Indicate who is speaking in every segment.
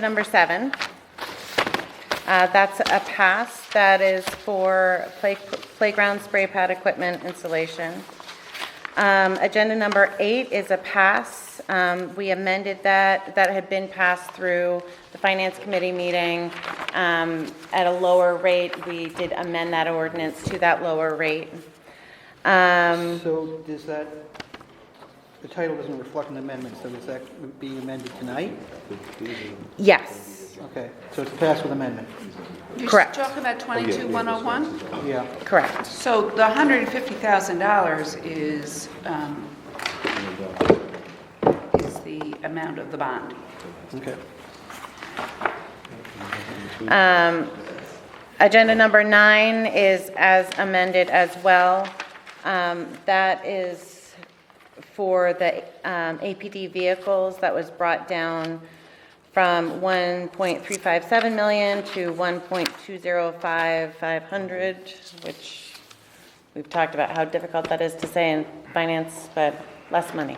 Speaker 1: Number seven, uh, that's a pass that is for play- playground spray pad equipment installation. Um, Agenda number eight is a pass. Um, We amended that, that had been passed through the Finance Committee meeting um, at a lower rate. We did amend that ordinance to that lower rate. Um,
Speaker 2: So does that, the title doesn't reflect an amendment, so is that being amended tonight?
Speaker 1: Yes,
Speaker 2: Okay, so it's passed with amendment,
Speaker 1: Correct.
Speaker 3: You're talking about
Speaker 4: Oh,
Speaker 3: 22,101?
Speaker 2: yeah.
Speaker 1: correct.
Speaker 3: So the $150,000 is, um, is the amount of the bond.
Speaker 2: Okay.
Speaker 1: Agenda number nine is as amended as well. Um, That is for the um, APD vehicles that was brought down from 1.357 million to 1.205500, which we've talked about how difficult that is to say in finance, but less money.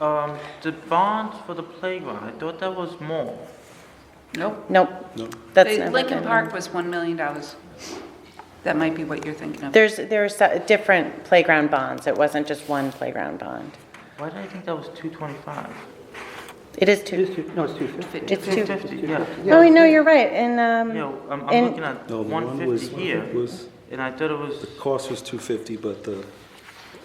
Speaker 4: Um, the bonds for the playground, I thought that was more.
Speaker 3: Nope.
Speaker 1: Nope. That's
Speaker 3: They-
Speaker 1: never
Speaker 3: Lincoln
Speaker 1: been-
Speaker 3: Park was $1 million. That might be what you're thinking of.
Speaker 1: There's, there's uh, different playground bonds. It wasn't just one playground bond.
Speaker 4: Why did I think that was two twenty-five?
Speaker 1: It is
Speaker 2: It
Speaker 1: two.
Speaker 2: is two, no, it's two fifty.
Speaker 1: It's
Speaker 4: Two
Speaker 1: two.
Speaker 4: fifty, yeah.
Speaker 1: Oh, no, you're right, and,
Speaker 4: Yeah,
Speaker 1: um,
Speaker 4: I'm, I'm
Speaker 1: and-
Speaker 4: looking at
Speaker 5: No, the
Speaker 4: one
Speaker 5: one was,
Speaker 4: fifty here,
Speaker 5: was,
Speaker 4: and I thought it was,
Speaker 5: cost was 250, but the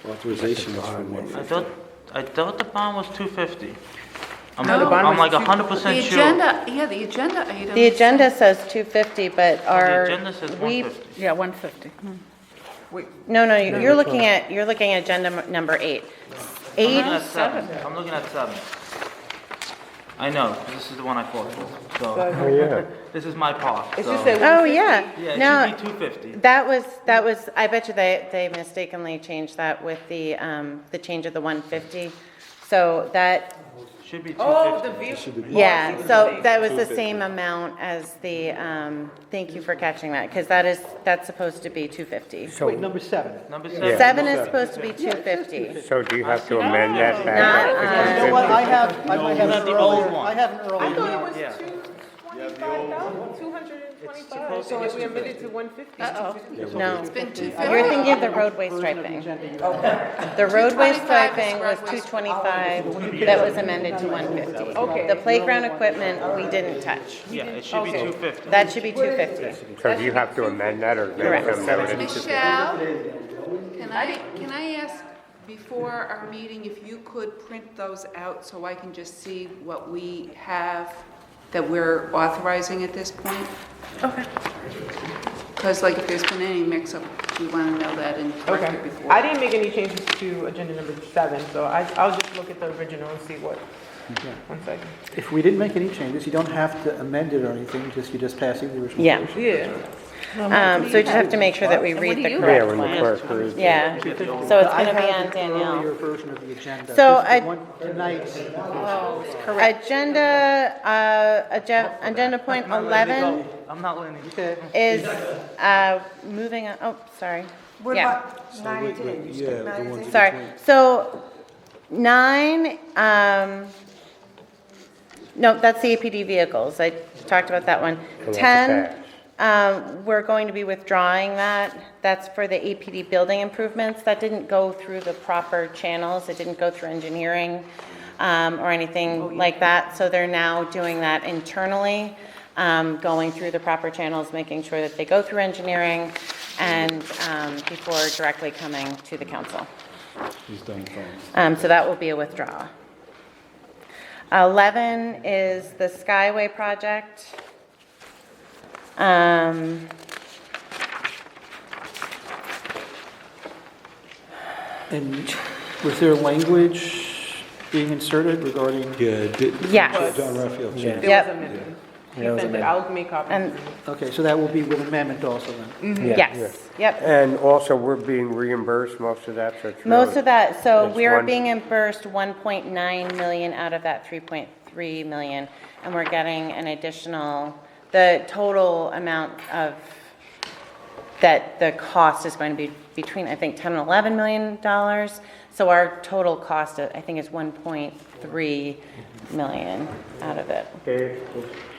Speaker 5: authorization was for
Speaker 4: I
Speaker 5: 150.
Speaker 4: thought, I thought the bond was two fifty. I'm,
Speaker 3: No, the bond
Speaker 4: I'm
Speaker 3: was
Speaker 4: like a hundred
Speaker 3: The
Speaker 4: percent sure.
Speaker 3: agenda, yeah, the agenda item.
Speaker 1: the agenda says 250, but our.
Speaker 4: Oh, agenda says
Speaker 1: we-
Speaker 4: 150.
Speaker 3: Yeah, 150.
Speaker 1: No, no, you- you're looking at, you're looking at agenda m- number eight.
Speaker 4: I'm looking
Speaker 1: Eight,
Speaker 4: at Oh, seven, I'm looking at seven. I know, 'cause this is the one I fought for, so, this is my part,
Speaker 6: It's
Speaker 4: so.
Speaker 6: just that
Speaker 1: oh,
Speaker 6: 150.
Speaker 1: yeah.
Speaker 4: Yeah,
Speaker 1: No,
Speaker 4: it should be two fifty.
Speaker 1: that was, that was, I bet you they, they mistakenly changed that with the, um, the change of the 150. So that,
Speaker 4: Should be two fifty.
Speaker 6: Oh, the vehicle.
Speaker 1: yeah, so that was the same amount as the, um, thank you for catching that, because that is, that's supposed to be 250.
Speaker 2: Oh, Wait, number seven.
Speaker 4: Number seven.
Speaker 1: Seven is supposed to be 250.
Speaker 7: So do you have to amend that
Speaker 1: Not
Speaker 7: back?
Speaker 1: on-
Speaker 2: You know what, I have, I might have an
Speaker 4: the old
Speaker 2: earlier,
Speaker 4: one.
Speaker 2: I have an
Speaker 6: I
Speaker 2: earlier.
Speaker 6: thought it was
Speaker 4: Yeah.
Speaker 6: two twenty-five thousand, two hundred and twenty-five, so we amended to one fifty.
Speaker 1: No.
Speaker 3: Been
Speaker 1: You're
Speaker 3: 250.
Speaker 1: thinking of the roadway striping. The roadway striping was 225, that was amended to 150.
Speaker 6: Okay.
Speaker 1: The playground equipment, we didn't touch.
Speaker 4: Yeah, it should be two fifty.
Speaker 1: That should be 250.
Speaker 7: So do you have to amend that or make
Speaker 1: Correct.
Speaker 7: some notice?
Speaker 3: Michelle, can I, can I ask before our meeting if you could print those out so I can just see what we have that we're authorizing at this point? Okay. Because like if there's been any mix-up, we want to know that and correct it
Speaker 6: Okay,
Speaker 3: before.
Speaker 6: I didn't make any changes to agenda number seven, so I, I'll just look at the original and see what, one second.
Speaker 2: If we didn't make any changes, you don't have to amend it or anything, just, you're just passing the original.
Speaker 1: Yeah,
Speaker 6: Yeah.
Speaker 1: um, so we just have to make sure that we read the
Speaker 7: Yeah,
Speaker 1: correct
Speaker 7: when the
Speaker 1: one.
Speaker 7: clerk reads it.
Speaker 1: Yeah, so it's going to be on
Speaker 2: I have an earlier
Speaker 1: Danielle.
Speaker 2: version of the
Speaker 1: So
Speaker 2: agenda. This is
Speaker 1: I-
Speaker 2: one- Tonight's,
Speaker 1: Agenda, uh, agen- agenda point 11
Speaker 4: I'm not letting it go.
Speaker 2: okay,
Speaker 1: is uh, moving, on- oh, sorry. Yeah.
Speaker 5: Yeah, the ones that-
Speaker 1: Sorry, so nine, um, no, that's the APD vehicles, I talked about that one.
Speaker 7: that's a
Speaker 1: Ten, um, we're going to be withdrawing that, that's for the APD building improvements, that didn't go through the proper channels, it didn't go through engineering, um, or anything like that, so they're now doing that internally, um, going through the proper channels, making sure that they go through engineering, and, um, before directly coming to the council.
Speaker 5: He's done fine.
Speaker 1: Um, So that will be a withdrawal. 11 is the Skyway project. Um,
Speaker 2: and was there language being inserted regarding?
Speaker 5: Yeah, did-
Speaker 1: Yes.
Speaker 5: John Raphael changed.
Speaker 6: It was
Speaker 1: Yep.
Speaker 6: amended. He sent it, I'll make copies.
Speaker 1: And,
Speaker 2: Okay, so that will be with amendment also then.
Speaker 1: yes, yep.
Speaker 7: And also, we're being reimbursed most of that, so it's
Speaker 1: Most
Speaker 7: really-
Speaker 1: of that, so
Speaker 7: It's
Speaker 1: we're
Speaker 7: one-
Speaker 1: being reimbursed 1.9 million out of that 3.3 million, and we're getting an additional, the total amount of, that the cost is going to be between, I think, 10 and 11 million dollars. So our total cost, I think, is 1.3 million out of it.
Speaker 7: Okay.